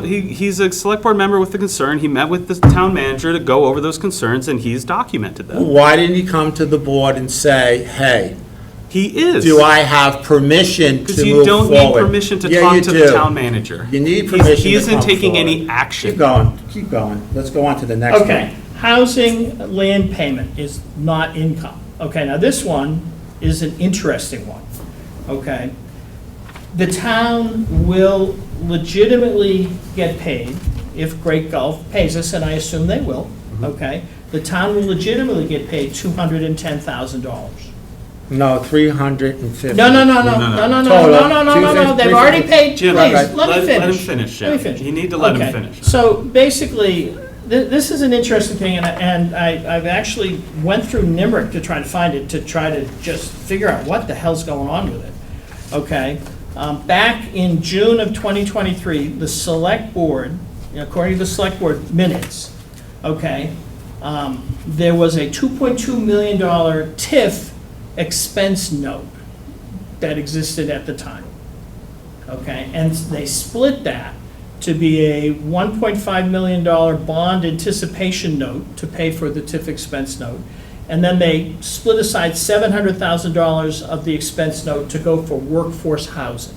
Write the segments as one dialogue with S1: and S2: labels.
S1: He, he's a select board member with a concern. He met with the town manager to go over those concerns, and he's documented them.
S2: Why didn't he come to the board and say, hey,
S1: He is.
S2: do I have permission
S1: Because
S2: to
S1: you
S2: move
S1: don't need
S2: forward?
S1: permission to
S2: Yeah,
S1: talk
S2: you
S1: to the
S2: do.
S1: town manager.
S2: You need
S1: He's-
S2: permission to
S1: He isn't
S2: come
S1: taking any
S2: forward.
S1: action.
S2: Keep going, keep going. Let's go on to the next one.
S3: Okay, housing land payment is not income. Okay, now this one is an interesting one, okay? The town will legitimately get paid if Great Gulf pays us, and I assume they will, okay? The town will legitimately get paid $210,000.
S2: No, 350.
S3: No, no,
S1: No,
S3: no, no, no,
S1: no,
S3: no, no,
S2: Total,
S3: no, no, no, no,
S2: 250,
S3: they've already paid, please,
S1: Jim,
S3: let me
S2: let-
S3: finish.
S1: let him finish,
S3: Let me
S1: Jim.
S3: finish.
S1: You need to let him
S3: Okay.
S1: finish.
S3: So basically, th- this is an interesting thing, and I- and I, I've actually went through NIMRIC to try to find it, to try to just figure out what the hell's going on with it, okay? Um, Back in June of 2023, the select board, according to the select board minutes, okay, um, there was a $2.2 million TIF expense note that existed at the time. Okay, and they split that to be a $1.5 million bond anticipation note to pay for the TIF expense note. And then they split aside $700,000 of the expense note to go for workforce housing.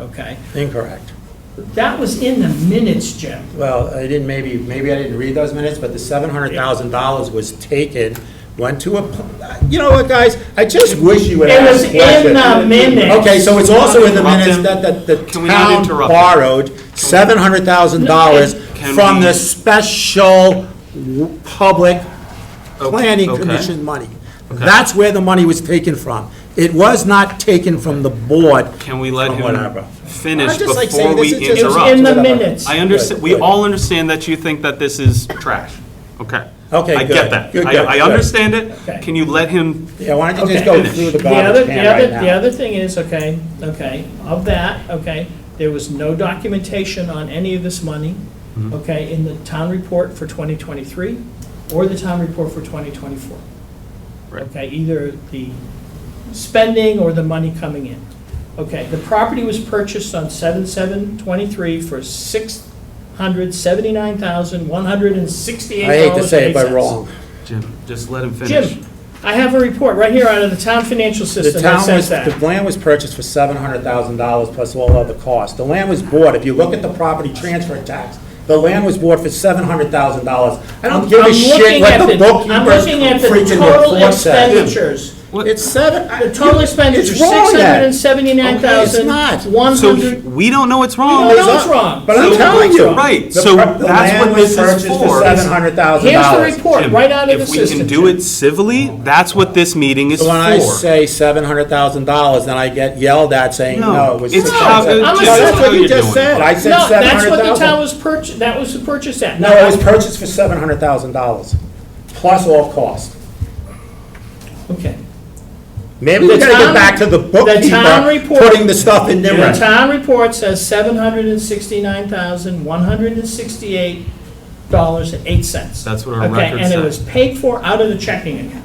S3: Okay,
S2: Incorrect.
S3: that was in the minutes, Jim.
S2: Well, I didn't, maybe, maybe I didn't read those minutes, but the $700,000 was taken, went to a, pl- you know what, guys? I just wish you would
S3: It
S2: ask
S3: was in the minutes.
S2: Okay, so it's also in the
S1: Interrupt
S2: minutes
S1: him.
S2: that, that the
S1: Can we not
S2: town
S1: interrupt him?
S2: borrowed seven hundred thousand dollars
S1: Can
S2: from
S1: we-
S2: the special w- public planning
S1: okay.
S2: commission money. That's where the money was taken from. It was not taken from the board.
S1: Can we let
S2: Or whatever.
S1: him finish
S2: I'm just, like, saying
S1: before we
S2: this is just-
S3: It was in
S1: interrupt?
S3: the
S2: Interrupt.
S3: minutes.
S1: I understand, we
S2: Good, good.
S1: all understand that you think that this is trash. Okay.
S2: Okay,
S1: I
S2: good.
S1: get that.
S2: Good, good,
S1: I, I
S2: good.
S1: understand it.
S3: Okay.
S1: Can you let him,
S2: Yeah, why don't you just
S3: Okay.
S2: go through the
S3: The other,
S2: garbage
S3: the
S2: can
S3: other,
S2: right
S3: the
S2: now?
S3: other thing is, okay, okay, of that, okay, there was no documentation on any of this money,
S2: Mm-hmm.
S3: okay, in the town report for 2023 or the town report for 2024.
S1: Right.
S3: Okay, either the spending or the money coming in. Okay, the property was purchased on 7/7/23 for $679,168.
S2: I hate to say it, but wrong.
S1: Jim, just let him finish.
S3: Jim, I have a report right here out of the town financial
S2: The
S3: system that
S2: town
S3: says
S2: was,
S3: that.
S2: the land was purchased for seven hundred thousand dollars plus all other costs. The land was bought, if you look at the property transfer tax, the land was bought for seven hundred thousand dollars. I don't give a
S3: I'm
S2: shit
S3: looking
S2: what
S3: at
S2: the
S3: I'm
S2: bookkeeper's
S3: looking at the
S2: freaking
S3: total
S2: report says.
S3: expenditures.
S1: What-
S2: It's seven. I-
S3: The total
S2: you-
S3: expenditures,
S2: it's wrong, then.
S3: 679,100.
S1: So he- we don't know what's wrong.
S3: We don't know. It's wrong.
S2: But I'm
S3: So-
S2: telling you.
S1: Right,
S2: the
S1: so
S2: pro- the
S1: that's
S2: land
S1: what
S2: was
S1: this is
S2: purchased
S1: for.
S2: Seven hundred thousand
S3: Here's the
S2: dollars.
S3: report,
S1: Jim,
S3: right out of the
S1: If we
S3: system.
S1: can do it civilly, that's what this meeting is
S2: So when I
S1: for.
S2: say seven hundred thousand dollars, then I get yelled at saying,
S1: No,
S2: no, it was
S1: it's
S2: six
S3: how-
S2: hundred.
S3: I'm
S2: No,
S3: a-
S2: that's what you
S1: you're
S2: just
S1: doing.
S2: said. I
S3: Jim.
S2: said
S3: No,
S2: seven
S3: that's
S2: hundred
S3: what the town
S2: thousand.
S3: was purchased, that was the purchase at.
S2: No, it was purchased for seven hundred thousand dollars, plus all cost.
S3: Okay.
S2: Maybe we
S3: The
S2: gotta
S3: town-
S2: get back to the
S3: The town
S2: bookkeeper,
S3: report.
S2: putting the stuff in there.
S3: The town report says seven hundred and sixty-nine thousand, one hundred and sixty-eight dollars and eight cents.
S1: That's what our record
S3: Okay, and
S1: said.
S3: it was paid for out of the checking account.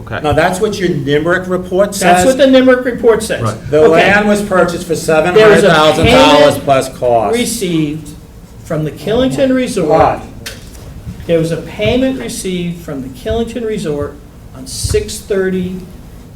S1: Okay,
S2: Now, that's what your NIMRIC report
S3: That's
S2: says.
S3: what the NIMRIC report says.
S1: Right.
S2: The
S3: Okay.
S2: land was purchased for seven
S3: There
S2: hundred
S3: was a
S2: thousand dollars
S3: payment
S2: plus cost.
S3: Received from the Killington Resort.
S2: What?
S3: There was a payment received from the Killington Resort on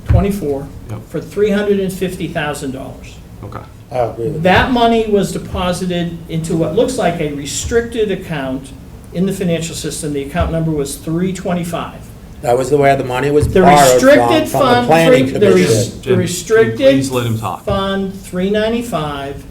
S3: 6/30/24
S1: Yep.
S3: for $350,000.
S1: okay.
S2: I agree with
S3: That money was deposited into what looks like a restricted account in the financial system. The account number was 325.
S2: you. That was the way the money was
S3: The
S2: borrowed from,
S3: restricted
S2: from the
S3: fund,
S2: planning
S3: three- the
S2: commission.
S3: res- the
S1: Jim,
S3: restricted.
S1: please let him talk.
S3: Fund 395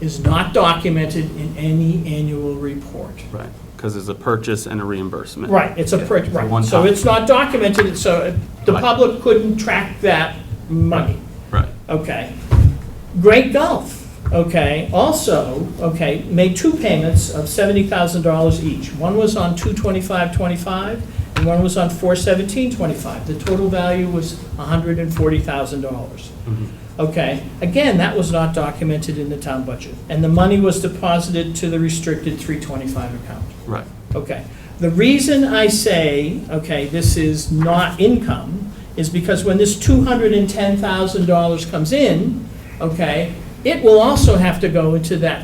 S3: is not documented in any annual report.
S1: Right, because it's a purchase and a reimbursement.
S3: Right, it's a, per-
S1: one
S3: right, so
S1: time.
S3: it's not documented, so the
S1: Right.
S3: public couldn't track that money,
S1: Right.
S3: okay? Great Gulf, okay, also, okay, made two payments of $70,000 each. One was on 22525 and one was on 41725. The total value was $140,000.
S1: Mm-hmm.
S3: Okay, again, that was not documented in the town budget, and the money was deposited to the restricted 325 account.
S1: Right.
S3: Okay. The reason I say, okay, this is not income, is because when this $210,000 comes in, okay, it will also have to go into that